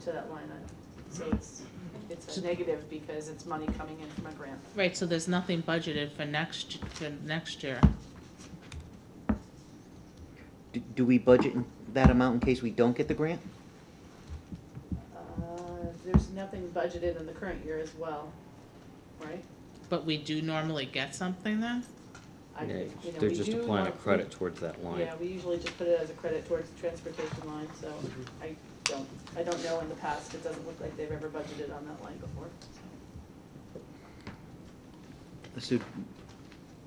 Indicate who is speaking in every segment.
Speaker 1: to that line item. So
Speaker 2: Hmm.
Speaker 1: it's, it's a negative because it's money coming in from a grant.
Speaker 3: Right, so there's nothing budgeted for next, for next year.
Speaker 4: Do, do we budget in that amount in case we don't get the grant?
Speaker 1: Uh, There's nothing budgeted in the current year as well, right?
Speaker 3: But we do normally get something then?
Speaker 1: I-
Speaker 2: Yeah,
Speaker 1: you know,
Speaker 2: They're
Speaker 1: we
Speaker 2: just
Speaker 1: do
Speaker 2: applying a
Speaker 1: want-
Speaker 2: credit towards that line.
Speaker 1: Yeah, we usually just put it as a credit towards the transportation line, so
Speaker 2: Mm-hmm.
Speaker 1: I don't, I don't know in the past, it doesn't look like they've ever budgeted on that line before, so
Speaker 4: So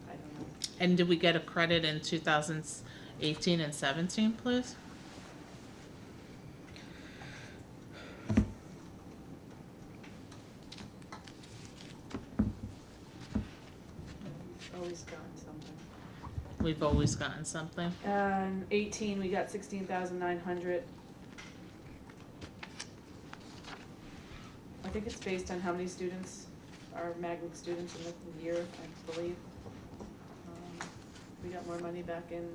Speaker 1: I don't know.
Speaker 3: And did we get a credit in two thousand eighteen and seventeen, please?
Speaker 1: We've Always gotten something.
Speaker 3: We've always gotten something.
Speaker 1: Um, eighteen, we got sixteen thousand nine hundred. I think it's based on how many students are magnet students in the year, I believe. Um, We got more money back in,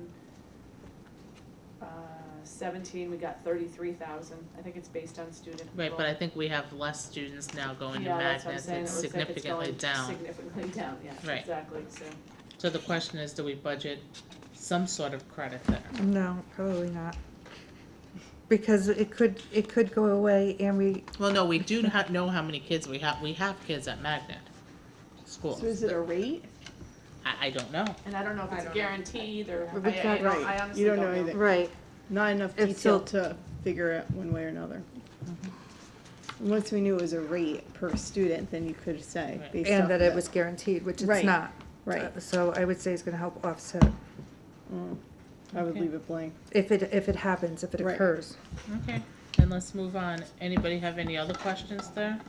Speaker 1: uh, seventeen, we got thirty-three thousand, I think it's based on student.
Speaker 3: Right, but I
Speaker 1: enroll-
Speaker 3: think we have less students now going to
Speaker 1: Yeah, that's what I'm
Speaker 3: Magnus.
Speaker 1: saying, it
Speaker 3: It's
Speaker 1: looks like it's
Speaker 3: significantly
Speaker 1: going
Speaker 3: down.
Speaker 1: significantly down, yeah,
Speaker 3: Right.
Speaker 1: exactly, so.
Speaker 3: So the question is, do we budget some sort of credit there?
Speaker 5: No, probably not. Because it could, it could go away and we,
Speaker 3: Well, no, we do ha- know how many kids we have. We have kids at Magnet School.
Speaker 6: So is it a rate?
Speaker 3: I, I don't know.
Speaker 1: And I don't know if
Speaker 6: I
Speaker 1: it's
Speaker 6: don't know.
Speaker 1: guaranteed or, I, I
Speaker 5: We can't-
Speaker 1: don't- I
Speaker 6: Right.
Speaker 1: honestly
Speaker 6: You
Speaker 1: don't
Speaker 6: don't
Speaker 1: know.
Speaker 6: know either.
Speaker 5: right,
Speaker 6: Not enough
Speaker 5: It's
Speaker 6: detail
Speaker 5: still-
Speaker 6: to figure out one way or another. And Once we knew it was a rate per student, then you could say
Speaker 3: Right.
Speaker 6: based off
Speaker 5: and that
Speaker 6: of
Speaker 5: it was guaranteed, which it's
Speaker 6: Right,
Speaker 5: not.
Speaker 6: Right, Mm.
Speaker 5: Uh, So I would say it's gonna help offset,
Speaker 6: I would
Speaker 3: Okay.
Speaker 6: leave it blank.
Speaker 5: if it, if it happens, if it
Speaker 6: Right.
Speaker 5: occurs.
Speaker 3: Okay, then let's move on. Anybody have any other questions there?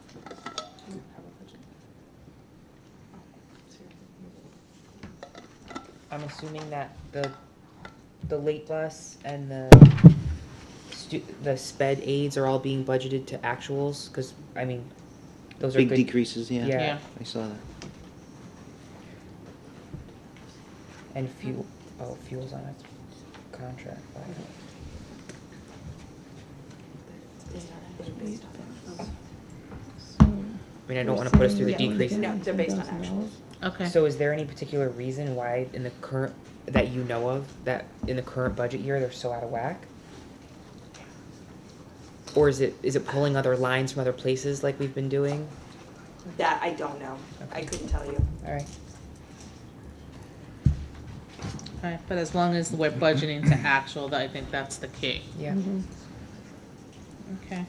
Speaker 7: I'm assuming that the, the late bus and the stu- the sped aids are all being budgeted to actuals, cause I mean, those are
Speaker 4: big
Speaker 7: good,
Speaker 4: decreases, yeah.
Speaker 7: Yeah.
Speaker 4: I saw that.
Speaker 7: and fuel, oh, fuel's on a contract, but I mean, I don't wanna put us through the decrease.
Speaker 8: they're based on actuals.
Speaker 3: Okay.
Speaker 7: So is there any particular reason why in the current, that you know of, that in the current budget year, they're so out of whack? Or is it, is it pulling other lines from other places like we've been doing?
Speaker 8: That I don't know. I couldn't tell you.
Speaker 7: Alright.
Speaker 3: Alright, but as long as we're budgeting to actual, that- I think that's the key.
Speaker 7: Yeah.
Speaker 3: Okay.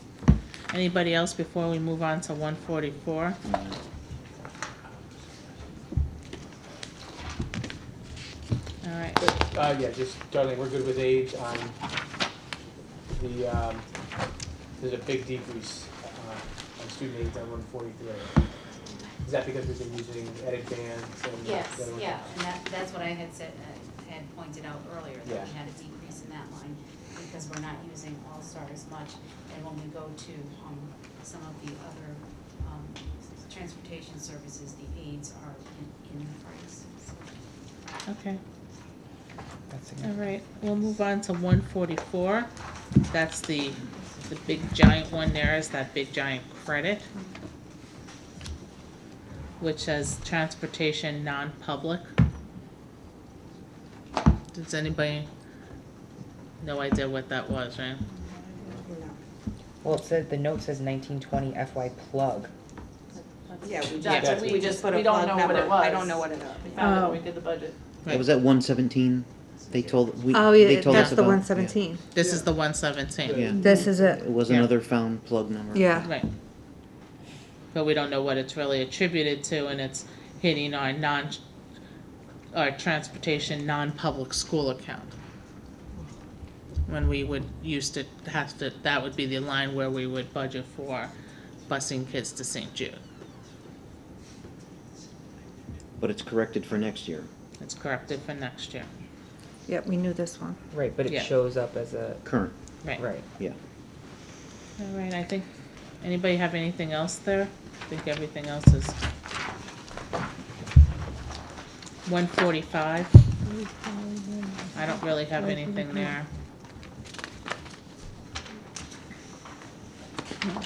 Speaker 3: Anybody else before we move on to one forty-four? Alright,
Speaker 9: Uh, yeah, just, darling, we're good with age, um, the, um, there's a big decrease, uh, on student aids on one forty-three. Is that because we've been using edit bands and?
Speaker 10: Yes,
Speaker 9: the other one?
Speaker 10: yeah, and that, that's what I had said, uh, had pointed out earlier, that we
Speaker 9: Yeah.
Speaker 10: had a decrease in that line, because we're not using All-Star as much, and when we go to, um, some of the other, um, transportation services, the aids are in, in the price, so.
Speaker 3: okay,
Speaker 7: That's significant.
Speaker 3: alright, we'll move on to one forty-four. That's the, the big giant one there is that big giant credit. Which says transportation non-public. Does anybody, no idea what that was, right?
Speaker 7: Well, it said, the note says nineteen twenty FY plug.
Speaker 8: Yeah, we
Speaker 9: That's
Speaker 8: just,
Speaker 9: what
Speaker 8: we just put a
Speaker 1: we don't
Speaker 8: plug
Speaker 1: know
Speaker 8: number.
Speaker 1: what it
Speaker 8: I
Speaker 1: was.
Speaker 8: don't know what it is.
Speaker 1: We found it when
Speaker 6: Oh.
Speaker 1: we did the budget.
Speaker 4: That was at one seventeen, they told, we,
Speaker 5: Oh,
Speaker 4: they
Speaker 5: yeah,
Speaker 4: told us
Speaker 5: that's
Speaker 4: about.
Speaker 5: the
Speaker 4: yeah.
Speaker 5: one seventeen.
Speaker 3: This is the one seventeen.
Speaker 4: Yeah,
Speaker 5: This is it,
Speaker 4: it was
Speaker 3: Yeah.
Speaker 4: another found plug number.
Speaker 5: yeah.
Speaker 3: Right. But we don't know what it's really attributed to, and it's hitting our non, our transportation, non-public school account. When we would, used to have to, that would be the line where we would budget for busing kids to St. Jude.
Speaker 4: But it's corrected for next year.
Speaker 3: It's corrected for next year,
Speaker 5: Yep, we knew this one.
Speaker 7: Right, but
Speaker 3: Yeah.
Speaker 7: it shows up as a,
Speaker 4: Current,
Speaker 3: right?
Speaker 7: right.
Speaker 4: yeah.
Speaker 3: All right, I think, anybody have anything else there? I think everything else is. One forty-five. I don't really have anything there.